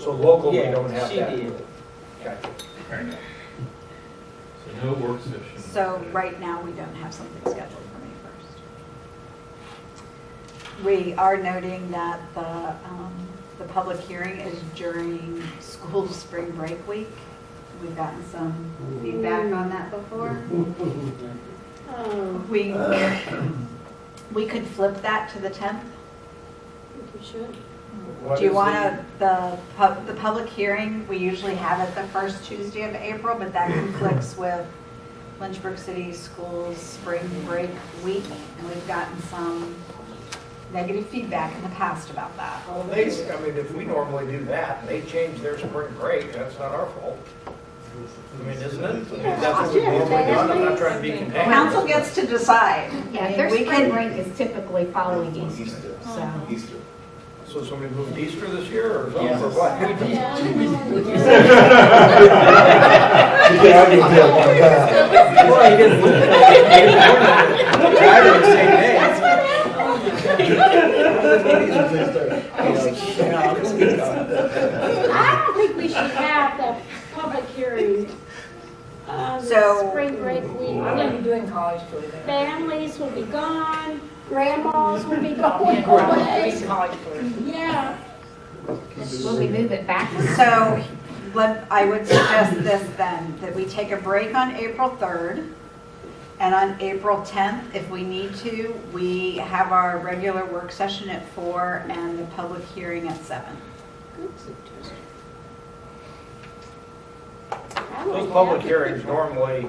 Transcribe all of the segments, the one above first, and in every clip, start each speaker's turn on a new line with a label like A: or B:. A: So local, we
B: Yeah,
A: don't have
B: she
A: that.
B: did.
A: Gotcha.
C: Fair enough.
D: So no work session.
E: So right now, we don't have something scheduled for May 1st. We are noting that the, um, the public hearing is during school spring break week. We've gotten some feedback on that before.
F: Oh,
E: We, we could flip that to the 10th.
F: I think we should.
A: What
E: Do you
A: is
E: want to, the, pub- the public hearing, we usually have it the first Tuesday of April, but that conflicts with Lynchburg City Schools Spring Break Week, and we've gotten some negative feedback in the past about that.
A: Well, they, I mean, if we normally do that, and they change their spring break, that's not our fault. I mean, isn't it? I mean, That's what we
F: Yeah,
A: normally do, I'm not
F: that's
A: trying to be contagious.
E: Council gets to decide.
G: Yeah, their
E: We can-
G: spring
E: Oh.
G: break is typically following Easter,
C: Easter.
G: so.
C: Easter.
A: So somebody moved Easter this year, or something, or
C: Yes.
A: what?
H: Yeah, I can tell by that.
B: Well, he didn't look at
A: Either the same day.
F: I don't think we should have the public hearing on
E: So-
F: the spring break week.
I: I'm gonna be doing college food there.
F: Families will be gone, grandmas will be going away.
I: Doing college food.
F: Yeah,
G: Will we move it back?
E: So, let, I would suggest this then, that we take a break on April 3rd, and on April 10th, if we need to, we have our regular work session at 4 and the public hearing at 7.
F: I would,
A: Those
F: yeah.
A: public hearings normally,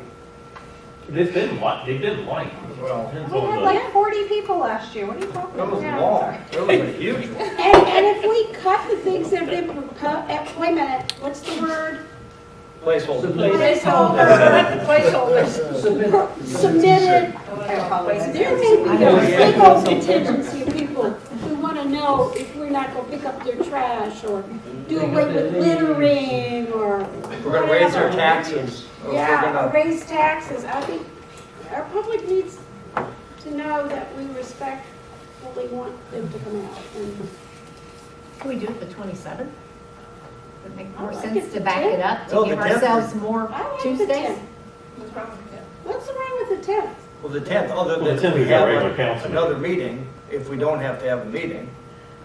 D: They've been li, they've been light.
A: well,
D: Depends
E: We
D: on
E: had
D: the-
E: like 40 people last year, what are you talking
A: that was
E: about?
A: long, that was a huge one.
F: And, and if we cut the things that have been proposed, eh, wait a minute, what's the word?
A: Placeholder.
I: Placeholder, placeholders.
F: Submitted,
E: I apologize.
F: there may be a big old contingency of people who want to know if we're not going to pick up their trash or do away with littering or
A: We're gonna raise our
F: whatever.
A: taxes. We're
F: Yeah, or
A: gonna-
F: raise taxes. I think our public needs to know that we respectfully want them to come out. and-
G: Can we do it the 27th? Would make more
E: Oh,
F: I like it
G: sense
F: the
G: to back it up,
A: No,
G: to
A: the
G: give
A: 10th.
G: ourselves more
F: I like the
G: Tuesdays?
F: 10th. What's wrong with the 10th?
A: Well, the tenth, other
D: Well,
A: than
D: the 10th
A: we
D: is our
A: have
D: regular
A: a-
D: council meeting.
A: another meeting, if we don't have to have a meeting.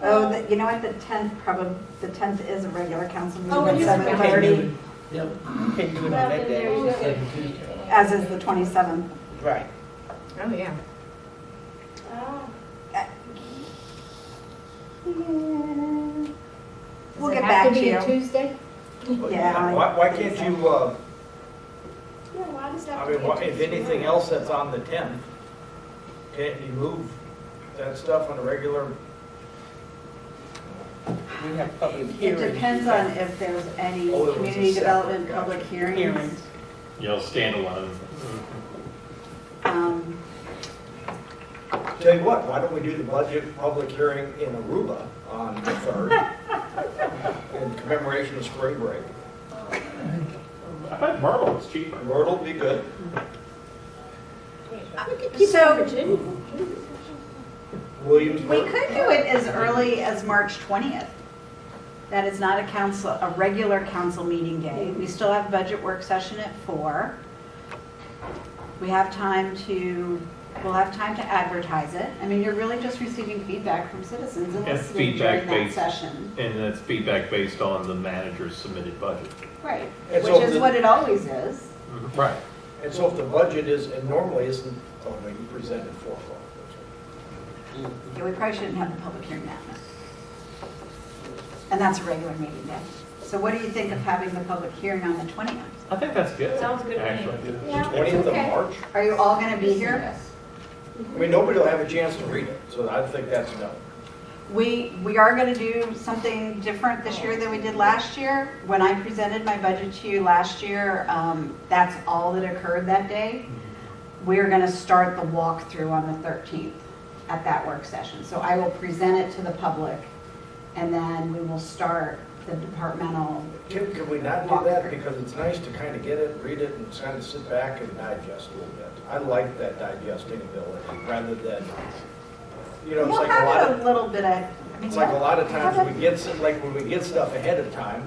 E: Oh, the- you know what, the 10th probably, the 10th is a regular council
F: Oh, it
E: meeting
F: is a
E: at
F: regular-
E: 7:30,
F: Well, then there you go.
E: as is the 27th.
B: Right.
G: Oh, yeah.
F: Oh.
E: Uh,
F: Yeah.
G: Does
E: We'll
G: it
E: get
G: have
E: back to
G: be a
E: you.
G: Tuesday?
E: Yeah.
A: Why, why can't you, uh,
F: Yeah, why does that?
A: I
F: have to
A: mean,
F: be
A: why- if
F: Tuesday
A: anything
F: night?
A: else that's on the tenth, can't you move that stuff on a regular?
B: We have public
E: It
B: hearings.
E: depends on if there's any
A: Oh, it was a
E: community
A: separate,
E: development,
A: gotcha.
E: public hearings.
B: Hearings.
D: You know, standalone.
E: Um,
A: Tell you what, why don't we do the budget public hearing in Aruba on the third? In commemoration of spring break.
D: I bet Myrtle was cheaper.
A: Myrtle will be good.
F: We could keep it
E: So-
F: in Virginia.
E: We
A: Williamsburg.
E: could do it as early as March 20th. That is not a council, a regular council meeting day. We still have budget work session at four. We have time to, we'll have time to advertise it. I mean, you're really just receiving feedback from citizens and
D: And
E: listening during
D: feedback
E: that
D: based.
E: session,
D: And that's feedback based on the manager's submitted budget.
E: right?
A: And
E: Which
A: so
E: is
A: the-
E: what it always is.
D: Right.
A: And so if the budget is, and normally isn't, oh, no, you presented four o'clock.
E: Yeah, we probably shouldn't have the public hearing that night. And that's a regular meeting day. So what do you think of having the public hearing on the 20th?
D: I think that's good.
I: Sounds good to me.
D: Actually.
F: Yeah,
A: Twentieth of
F: okay.
A: March?
E: Are you all going to be here?
A: I mean, nobody will have a chance to read it, so I think that's no.
E: We, we are going to do something different this year than we did last year. When I presented my budget to you last year, um, that's all that occurred that day. We're going to start the walkthrough on the 13th at that work session. So I will present it to the public, and then we will start the departmental
A: Can, can we not do that? Because it's nice to kind of get it, read it, and kind of sit back and digest a little bit. I like that digesting ability rather than, you know, it's
E: We'll
A: like a lot
E: have it
A: of,
E: a little bit of mean,
A: Like a lot of
E: how
A: times
E: about-
A: we get, s- like when we get stuff ahead of time,